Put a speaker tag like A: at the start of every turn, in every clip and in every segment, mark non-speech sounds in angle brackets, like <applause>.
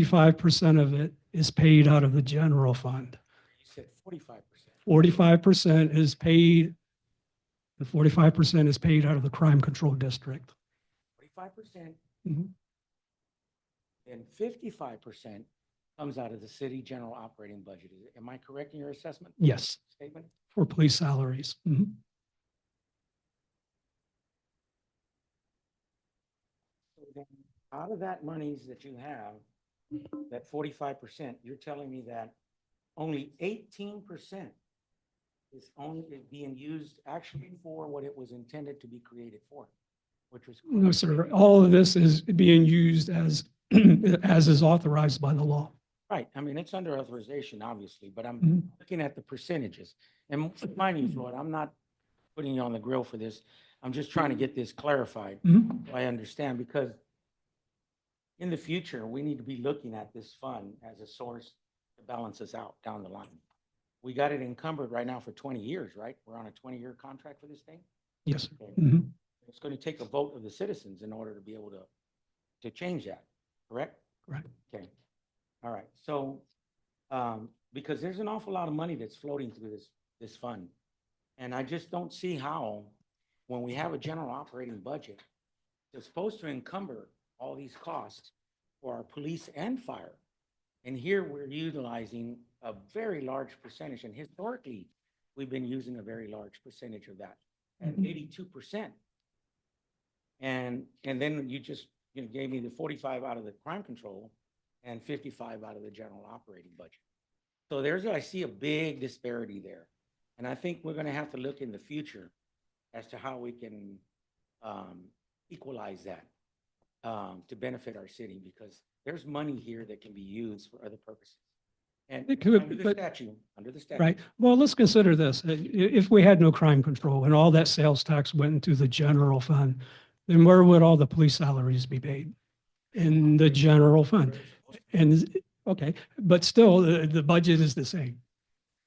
A: Fifty-five percent of it is paid out of the general fund.
B: You said forty-five percent.
A: Forty-five percent is paid, the forty-five percent is paid out of the crime control district.
B: Forty-five percent
A: Mhm. Mm-hmm.
B: and fifty-five percent comes out of the city general operating budget. Is- Am I correct in your assessment
A: Yes,
B: statement?
A: for police salaries. Mhm.
B: So then, Out of that monies that you have, that forty-five percent, you're telling me that only eighteen percent is only is being used actually for what it was intended to be created for, which was.
A: No, sir, all of this is being used as, <clears throat> as is authorized by the law.
B: Right, I mean, it's under authorization, obviously, but I'm
A: Mhm.
B: looking at the percentages. And mind you, Floyd, I'm not putting you on the grill for this. I'm just trying to get this clarified.
A: Mhm.
B: I understand because in the future, we need to be looking at this fund as a source to balance us out down the line. We got it encumbered right now for twenty years, right? We're on a twenty-year contract for this thing.
A: Yes, sir.
B: Okay.
A: Mhm.
B: It's going to take a vote of the citizens in order to be able to, to change that, correct?
A: Correct.
B: Okay, all right, so, um, because there's an awful lot of money that's floating through this, this fund. And I just don't see how, when we have a general operating budget, they're supposed to encumber all these costs for our police and fire. And here we're utilizing a very large percentage, and historically, we've been using a very large percentage of that, at
A: Mhm.
B: eighty-two percent. And, and then you just, you know, gave me the forty-five out of the crime control and fifty-five out of the general operating budget. So there's, I see a big disparity there. And I think we're gonna have to look in the future as to how we can, um, equalize that, um, to benefit our city, because there's money here that can be used for other purposes. And
A: It could,
B: under the
A: but-
B: statute, under the statute.
A: Right. Well, let's consider this. Uh, I- i- If we had no crime control and all that sales tax went into the general fund, then where would all the police salaries be paid? In the general fund. And, is- okay, but still, the, the budget is the same.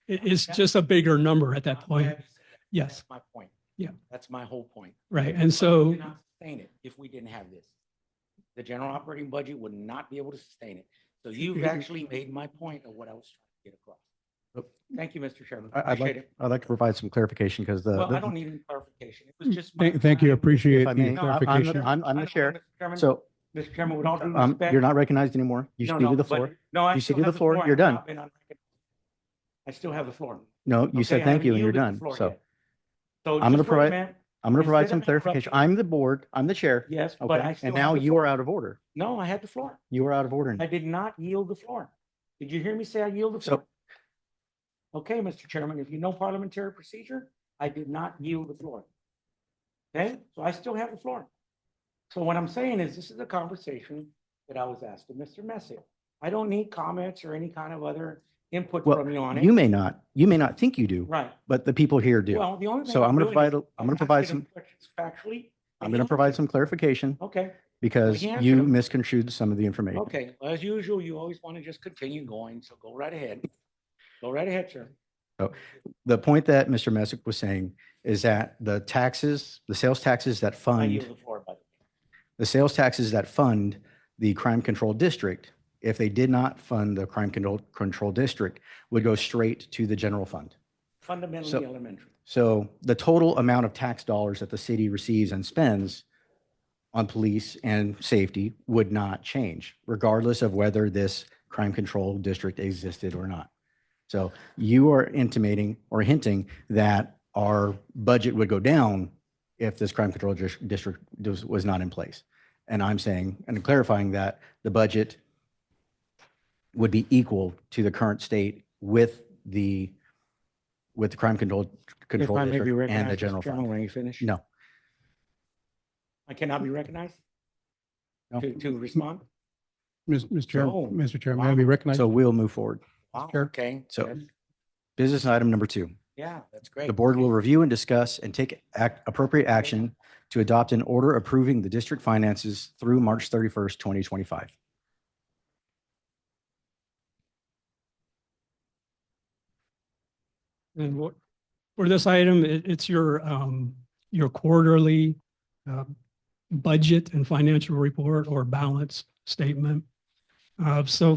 A: It- it's just a bigger number at that
B: I'm
A: point.
B: glad you said that.
A: Yes.
B: That's My point.
A: Yeah.
B: That's my whole point.
A: Right. And
B: But we
A: so,
B: could not Sustain it if we didn't have this. The general operating budget would not be able to sustain it. So you've actually made my point of what I was trying to get across.
C: Yep.
B: Thank you, Mr. Chairman.
C: I- I'd
B: Appreciate
C: like,
B: it.
C: I'd like to provide some clarification because the.
B: Well,
C: the-
B: I don't need any clarification. It
A: Mm,
B: was just. my-
D: Thank, thank you. Appreciate
C: if I
D: the
C: may, I'm- I'm the-
D: clarification.
C: I'm, I'm
B: I
C: the
B: don't-
C: chair.
B: Mr. Chairman,
C: So
B: Mr. Chairman, with all due
C: um,
B: respect.
C: you're not recognized anymore. You
B: No,
C: ceded
B: no,
C: the
B: but-
C: floor.
B: No, I
C: You
B: still
C: ceded
B: have
C: the
B: the
C: floor.
B: floor. I
C: You're
B: have not
C: done.
B: been unrecognized. I still have the floor.
C: No, you
B: Okay,
C: said
B: I
C: thank you and you're
B: yielded the
C: done.
B: floor
C: So
B: yet. So.
C: I'm gonna
B: just for a
C: provide-
B: minute-
C: I'm going to provide
B: Instead
C: some
B: of
C: clarification.
B: interrupting-
C: I'm the board, I'm the chair.
B: Yes, but I
C: Okay.
B: still.
C: And
B: have
C: now
B: the
C: you
B: floor.
C: are out of order.
B: No, I had the floor.
C: You are out of order.
B: I did not yield the floor. Did you hear me say I yield the
C: So-
B: floor? Okay, Mr. Chairman, if you know parliamentary procedure, I did not yield the floor. Okay, so I still have the floor. So what I'm saying is this is a conversation that I was asked of Mr. Messick. I don't need comments or any kind of other input
C: Well,
B: from you on it.
C: You may not, you may not think you do,
B: Right.
C: but the people here do.
B: Well, the only thing.
C: So I'm going to
B: doing is
C: provide, a- I'm going to provide
B: asking
C: some,
B: him questions Factually.
C: I'm
B: and
C: going to
B: he-
C: provide some clarification
B: Okay.
C: because
B: he
C: you
B: answered him.
C: misconstrued some of the information.
B: Okay, well, as usual, you always want to just continue going, so go right ahead. Go right ahead, sir.
C: The point that Mr. Messick was saying is that the taxes, the sales taxes that
B: I
C: fund.
B: yield the floor, by the way.
C: the sales taxes that fund the crime control district, if they did not fund the crime control, control district, would go straight to the general fund.
B: Fundamentally
C: So-
B: elementary.
C: So the total amount of tax dollars that the city receives and spends on police and safety would not change, regardless of whether this crime control district existed or not. So you are intimating or hinting that our budget would go down if this crime control dis- district was- was not in place. And I'm saying, and clarifying that the budget would be equal to the current state with the, with the crime control,
B: If
C: control
B: I may be
C: district and the
B: recognized,
C: general
B: Mr. Chairman,
C: fund.
B: when you finish?
C: No.
B: I cannot be recognized
C: No.
B: to, to respond?
D: Mis- Mr. Chairman,
B: Oh,
D: Mr. Chairman,
B: wow.
D: may I be recognized?
C: So we'll move forward.
B: Wow,
D: Sure.
B: okay.
C: So-
B: that's-
C: Business item number two.
B: Yeah, that's great.
C: The board will review and discuss and take act, appropriate action to adopt an order approving the district finances through March 31st, 2025.
A: and what, for this item, it, it's your, um, your quarterly, uh, um, budget and financial report or balance statement. Uh, So